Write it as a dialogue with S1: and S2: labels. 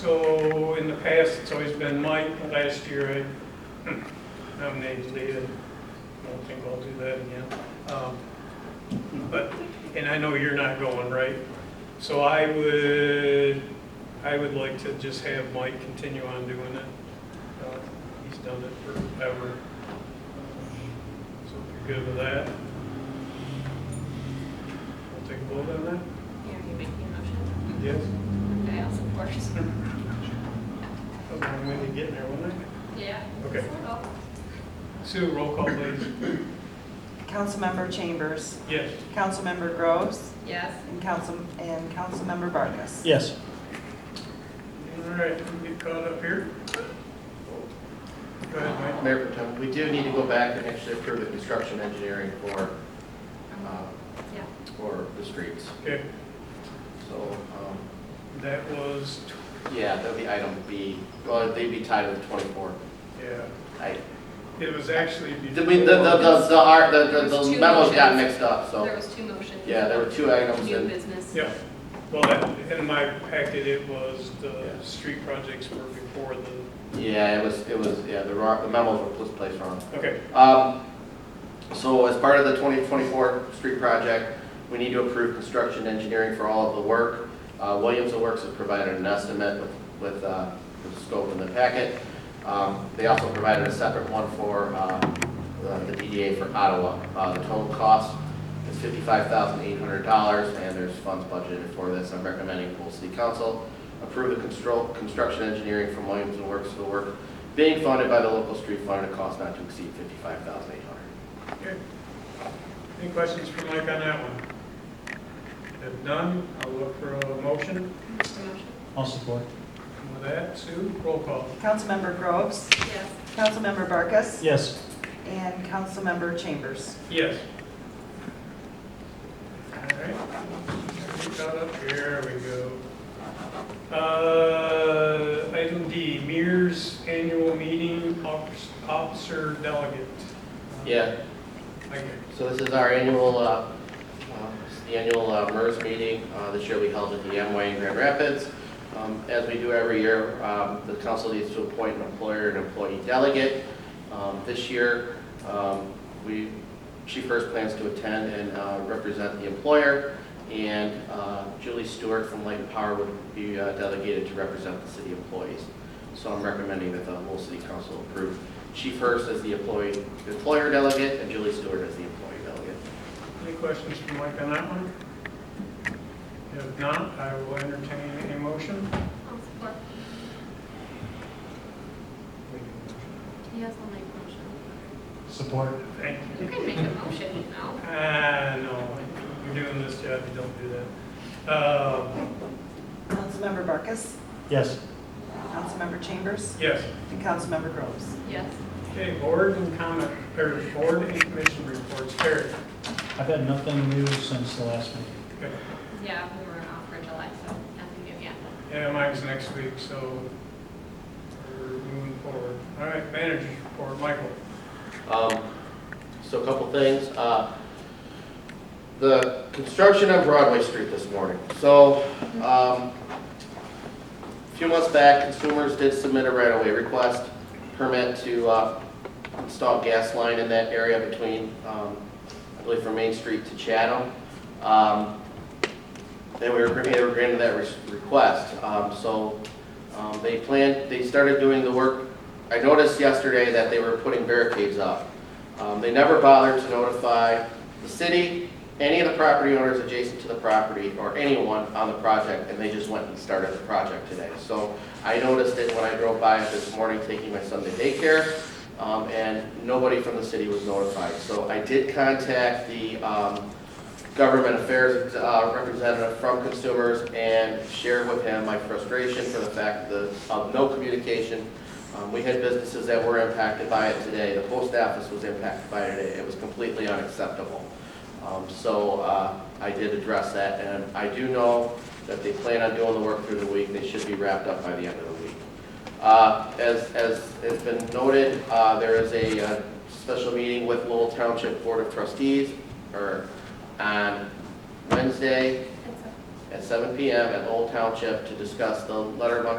S1: So in the past, it's always been Mike, but last year I nominated Leah. I don't think I'll do that again. Um, But, and I know you're not going, right? So I would, I would like to just have Mike continue on doing it. Uh, He's done it forever. So if you're good with that, we'll take a vote on that?
S2: Here, you make your motion.
S1: Yes?
S2: Okay, I'll support.
S1: That was a long way to get there, wasn't it?
S2: Yeah.
S1: Okay. Sue, roll call please.
S3: Councilmember Chambers,
S1: Yes.
S3: Councilmember Groves,
S2: Yes.
S3: and Council, and Councilmember Vargas.
S4: Yes.
S1: All right, we get caught up here. Go ahead, Mike.
S5: Mayor Protem, we do need to go back and actually approve the construction engineering for, uh,
S2: Yeah.
S5: for the streets.
S1: Okay,
S5: So, um,
S1: that was,
S5: yeah, that'd be item B, well, they'd be tied with 24.
S1: yeah,
S5: I,
S1: it was actually
S5: the,
S1: before.
S5: we- the, the, the- the, our- the- the-
S2: There's
S5: the
S2: two
S5: memos got
S2: motions.
S5: mixed up,
S2: There
S5: so,
S2: was two motions.
S5: yeah, there were two items
S2: New
S5: and,
S2: business.
S1: Yeah, well, that- in my packet, it was the
S5: Yeah.
S1: street projects were before the,
S5: yeah, it was, it was, yeah, the wrong- the memos were placed wrong.
S1: okay,
S5: Um, So as part of the 2024 street project, we need to approve construction engineering for all of the work. Uh, Williams and Works has provided an estimate with- with uh, the scope in the packet. Um, They also provided a separate one for uh, the DDA for Ottawa. Uh, The total cost is $55,800, and there's funds budgeted for this. I'm recommending full city council approve the constro- construction engineering from Williams and Works for the work being funded by the local street fund at a cost not to exceed fifty-five thousand eight hundred.
S1: okay. Any questions for Mike on that one? If none, I'll look for a motion.
S2: Just a motion.
S4: I'll support.
S1: And With that, Sue, roll call.
S3: Councilmember Groves,
S2: Yes.
S3: Councilmember Vargas,
S4: Yes.
S3: and Councilmember Chambers.
S1: Yes. All right. Get caught up. Here we go. Uh, Item D, Mears Annual Meeting Office- Officer Delegate. Uh,
S5: Yeah,
S1: Okay.
S5: so this is our annual, uh, uh, it's the annual uh, MERS meeting. Uh, This year we held at the Amway in Grand Rapids. Um, As we do every year, um, the council needs to appoint an employer and employee delegate. Um, This year, um, we, she first plans to attend and uh, represent the employer, and uh, Julie Stewart from Light and Power would be uh, delegated to represent the city employees. So I'm recommending that the whole city council approve She first as the employee, employer delegate, and Julie Stewart as the employee delegate.
S1: Any questions from Mike on that one? If not, I will entertain a motion.
S2: I'll support. Yes, I'll make a motion.
S4: Support.
S1: Thank
S2: You
S1: you.
S2: can make a motion, you know.
S1: Ah, no, you're doing this job, you don't do that. Uh,
S3: Councilmember Vargas,
S4: Yes.
S3: Councilmember Chambers,
S1: Yes.
S3: and Councilmember Groves.
S2: Yes.
S1: Okay, board and comment, or board and commission reports, Terry.
S4: I've had nothing new since the last meeting.
S1: Okay.
S2: Yeah, we were off for July, so nothing new yet.
S1: Yeah, mine's next week, so we're moving forward. All right, managers report, Michael.
S5: Um, So a couple things. Uh, The construction on Broadway Street this morning. So um, a few months back, consumers did submit a right-of-way request permit to uh, install gas line in that area between, um, I believe from Main Street to Chatham. Um, And we were granted they were granted that re- request. Um, So um, they planned, they started doing the work I noticed yesterday that they were putting barricades up. Um, They never bothered to notify the city, any of the property owners adjacent to the property, or anyone on the project, and they just went and started the project today. So I noticed it when I drove by it this morning taking my son to daycare, um, and nobody from the city was notified. So I did contact the um, government affairs uh, representative from consumers and shared with him my frustration for the fact that of no communication um, We had businesses that were impacted by it today. The post office was impacted by it today. It was completely unacceptable. Um, So uh, I did address that, and I do know that they plan on doing the work through the week. They should be wrapped up by the end of the week. Uh, As, as has been noted, uh, there is a uh, special meeting with Lowell Township Board of Trustees, or on Wednesday
S2: It's okay.
S5: at 7 PM at Lowell Township to discuss the letter of